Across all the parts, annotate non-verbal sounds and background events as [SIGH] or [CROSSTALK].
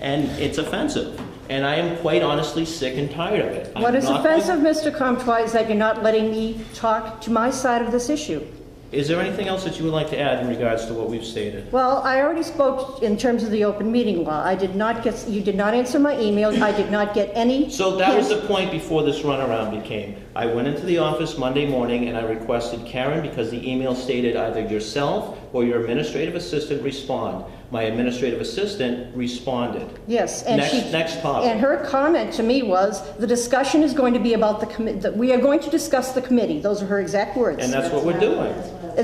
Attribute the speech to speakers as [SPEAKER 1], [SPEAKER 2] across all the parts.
[SPEAKER 1] and it's offensive. And I am quite honestly sick and tired of it.
[SPEAKER 2] What
[SPEAKER 1] I'm
[SPEAKER 2] is
[SPEAKER 1] not going-
[SPEAKER 2] offensive, Mr. Comtois, is that you're not letting me talk to my side of this issue.
[SPEAKER 1] Is there anything else that you would like to add in regards to what we've stated?
[SPEAKER 2] Well, I already spoke in terms of the open meeting law. I did not get, you did not answer my email. I did not get any.
[SPEAKER 1] So that was the
[SPEAKER 2] hint.
[SPEAKER 1] point before this runaround became. I went into the office Monday morning and I requested Karen because the email stated either yourself or your administrative assistant respond. My administrative assistant responded.
[SPEAKER 2] Yes, and
[SPEAKER 1] Next-
[SPEAKER 2] she.
[SPEAKER 1] next topic.
[SPEAKER 2] And her comment to me was, the discussion is going to be about the commi, that we are going to discuss the committee. Those are her exact words.
[SPEAKER 1] And that's what we're doing.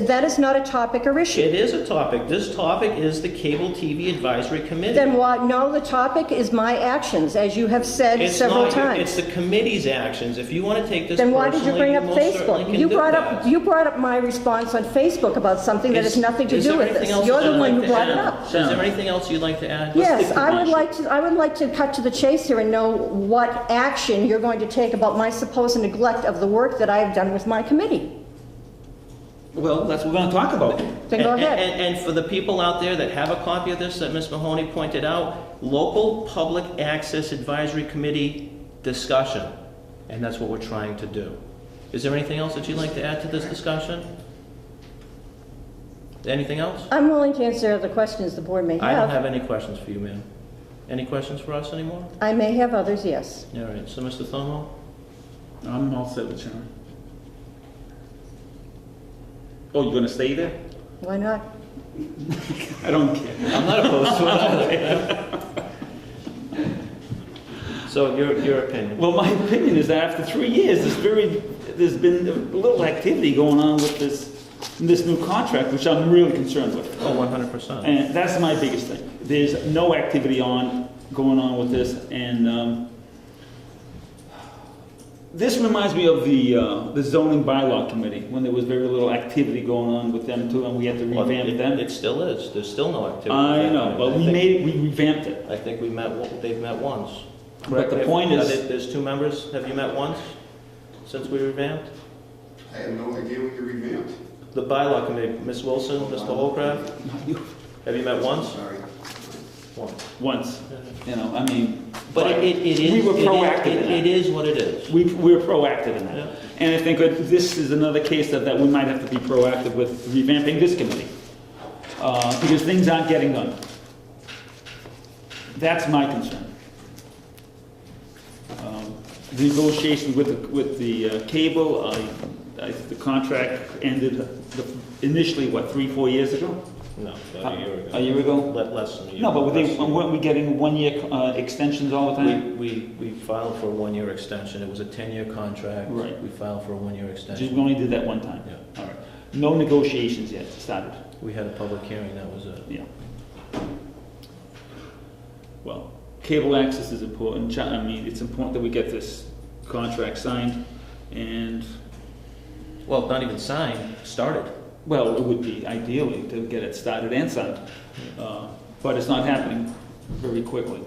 [SPEAKER 2] That is not a topic or issue.
[SPEAKER 1] It is a topic. This topic is the Cable TV Advisory Committee.
[SPEAKER 2] Then why, no, the topic is my actions, as you have said
[SPEAKER 1] It's
[SPEAKER 2] several
[SPEAKER 1] not your-
[SPEAKER 2] times.
[SPEAKER 1] It's the committee's actions. If you want to take this
[SPEAKER 2] Then why did you
[SPEAKER 1] personally,
[SPEAKER 2] bring up
[SPEAKER 1] most certainly
[SPEAKER 2] Facebook?
[SPEAKER 1] can
[SPEAKER 2] You
[SPEAKER 1] do
[SPEAKER 2] brought
[SPEAKER 1] that.
[SPEAKER 2] up, you brought up my response on Facebook about something that
[SPEAKER 1] Is-
[SPEAKER 2] has nothing to
[SPEAKER 1] is
[SPEAKER 2] do
[SPEAKER 1] there
[SPEAKER 2] with
[SPEAKER 1] anything
[SPEAKER 2] this.
[SPEAKER 1] else
[SPEAKER 2] You're
[SPEAKER 1] that
[SPEAKER 2] the
[SPEAKER 1] I'd like
[SPEAKER 2] one who
[SPEAKER 1] to
[SPEAKER 2] brought it
[SPEAKER 1] add?
[SPEAKER 2] up.
[SPEAKER 1] Is there anything else you'd like to add?
[SPEAKER 2] Yes, I would
[SPEAKER 1] Commissioner.
[SPEAKER 2] like to, I would like to cut to the chase here and know what action you're going to take about my supposed neglect of the work that I have done with my committee.
[SPEAKER 3] Well, that's what we're gonna talk about.
[SPEAKER 2] Then
[SPEAKER 1] [LAUGHS]
[SPEAKER 2] go
[SPEAKER 1] And-
[SPEAKER 2] ahead.
[SPEAKER 1] And, and for the people out there that have a copy of this that Ms. Mahoney pointed out, local public access advisory committee discussion. And that's what we're trying to do. Is there anything else that you'd like to add to this discussion? Anything else?
[SPEAKER 2] I'm willing to answer other questions the board may
[SPEAKER 1] I don't
[SPEAKER 2] have.
[SPEAKER 1] have any questions for you, ma'am. Any questions for us anymore?
[SPEAKER 2] I may have others, yes.
[SPEAKER 1] All right, so Mr. Thomo?
[SPEAKER 3] I'm all set with Sharon. Oh, you're gonna stay there?
[SPEAKER 2] Why not?
[SPEAKER 3] I don't care.
[SPEAKER 1] I'm not opposed to it [LAUGHS] So your, your opinion?
[SPEAKER 3] Well, my opinion is that after three years, there's very, there's been a little activity going on with this, this new contract, which I'm really concerned with.
[SPEAKER 1] Oh, 100%.
[SPEAKER 3] And that's my biggest thing. There's no activity on, going on with this, and, um, this reminds me of the, uh, the zoning bylaw committee, when there was very little activity going on with them too, and we had to
[SPEAKER 1] Well,
[SPEAKER 3] revamp
[SPEAKER 1] it-
[SPEAKER 3] them. Uh,
[SPEAKER 1] It still is, there's still no activity.
[SPEAKER 3] I know,
[SPEAKER 1] I
[SPEAKER 3] but we
[SPEAKER 1] think-
[SPEAKER 3] made, we revamped it.
[SPEAKER 1] I think we met, o- they've met once.
[SPEAKER 3] But the
[SPEAKER 1] If-
[SPEAKER 3] point
[SPEAKER 1] uh,
[SPEAKER 3] is,
[SPEAKER 1] there- There's two members, have you met once since we revamped?
[SPEAKER 4] I have no idea what you revamped.
[SPEAKER 1] The bylaw committee, Ms. Wilson, Mr. Holcraft, have you met once?
[SPEAKER 4] Sorry.
[SPEAKER 1] Once.
[SPEAKER 3] once, you know, I mean.
[SPEAKER 1] But it, it it is.
[SPEAKER 3] We were
[SPEAKER 1] it is-
[SPEAKER 3] proactive in
[SPEAKER 1] it-
[SPEAKER 3] that.
[SPEAKER 1] It is what it is.
[SPEAKER 3] We, we're proactive in
[SPEAKER 1] Yeah.
[SPEAKER 3] that. And I think that this is another case that, that we might have to be proactive with revamping this committee. Uh, because things aren't getting done. That's my concern. Um, the Negotiations with, the- with the uh, cable, I, I, the contract ended the- initially, what, three, four years ago?
[SPEAKER 1] No, about a year ago.
[SPEAKER 3] A year ago?
[SPEAKER 1] Le- Less than a year.
[SPEAKER 3] Uh, No, but
[SPEAKER 1] less
[SPEAKER 3] they,
[SPEAKER 1] than a year.
[SPEAKER 3] weren't we getting one-year uh, extensions all the time?
[SPEAKER 1] We, we, we filed for a one-year extension, it was a 10-year contract.
[SPEAKER 3] Right.
[SPEAKER 1] We filed for a one-year
[SPEAKER 3] Just,
[SPEAKER 1] extension.
[SPEAKER 3] we only did that one time.
[SPEAKER 1] Yeah.
[SPEAKER 3] All right. No negotiations yet started.
[SPEAKER 1] We had a public hearing, that was uh, it.
[SPEAKER 3] Yeah. Well, cable access is important, Chi- I mean, it's important that we get this contract signed, and,
[SPEAKER 1] Well, not even signed, started.
[SPEAKER 3] well, it would be ideally to get it started and signed, Uh, but it's not happening very quickly.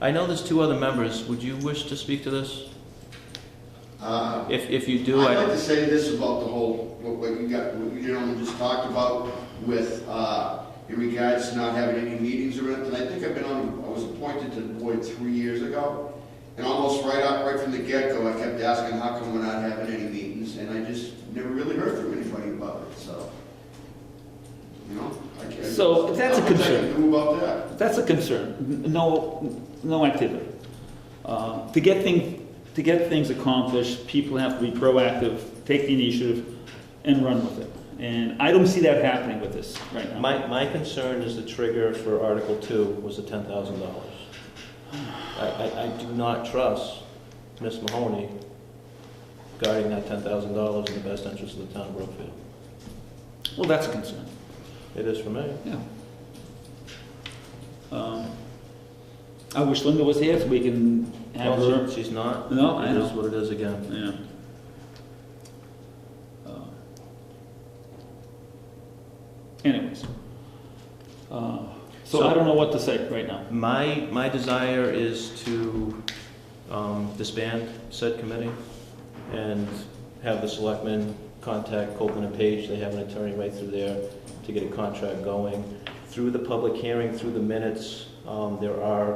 [SPEAKER 1] I know there's two other members. Would you wish to speak to this?
[SPEAKER 4] Uh,
[SPEAKER 1] If, if you do,
[SPEAKER 4] I'd like
[SPEAKER 1] I,
[SPEAKER 4] to say this about the whole, what what you got, what you gentlemen just talked about with, uh, in regards to not having any meetings or anything. I think I've been on, I was appointed to the board three years ago. And almost right up, right from the get-go, I kept asking, how come we're not having any meetings? And I just never really heard from anybody about it, so, you know? I can't-
[SPEAKER 3] So, that's a
[SPEAKER 4] Nothing I
[SPEAKER 3] concern.
[SPEAKER 4] can do about that.
[SPEAKER 3] That's a concern, N- no, no activity. Uh, To get things, to get things accomplished, people have to be proactive, take the initiative, and run with it. And I don't see that happening with this right now.
[SPEAKER 1] my, my concern is the trigger for Article Two was the ten thousand dollars. I, I, I do not trust Ms. Mahoney guarding that ten thousand dollars in the best interest of the town of Brookfield.
[SPEAKER 3] Well, that's a concern,
[SPEAKER 1] It is for me.
[SPEAKER 3] yeah. Um, I wish Linda was here so we can have
[SPEAKER 1] Well,
[SPEAKER 3] her,
[SPEAKER 1] she- She's not.
[SPEAKER 3] No, I
[SPEAKER 1] It is
[SPEAKER 3] know.
[SPEAKER 1] what it is again.
[SPEAKER 3] yeah. Uh, Anyways. Uh, So
[SPEAKER 1] So-
[SPEAKER 3] I don't know what to say right now.
[SPEAKER 1] My, my desire is to um, disband said committee and have the selectmen contact Copeland and Page, they have an attorney right through there to get a contract going. Through the public hearing, through the minutes, um, there are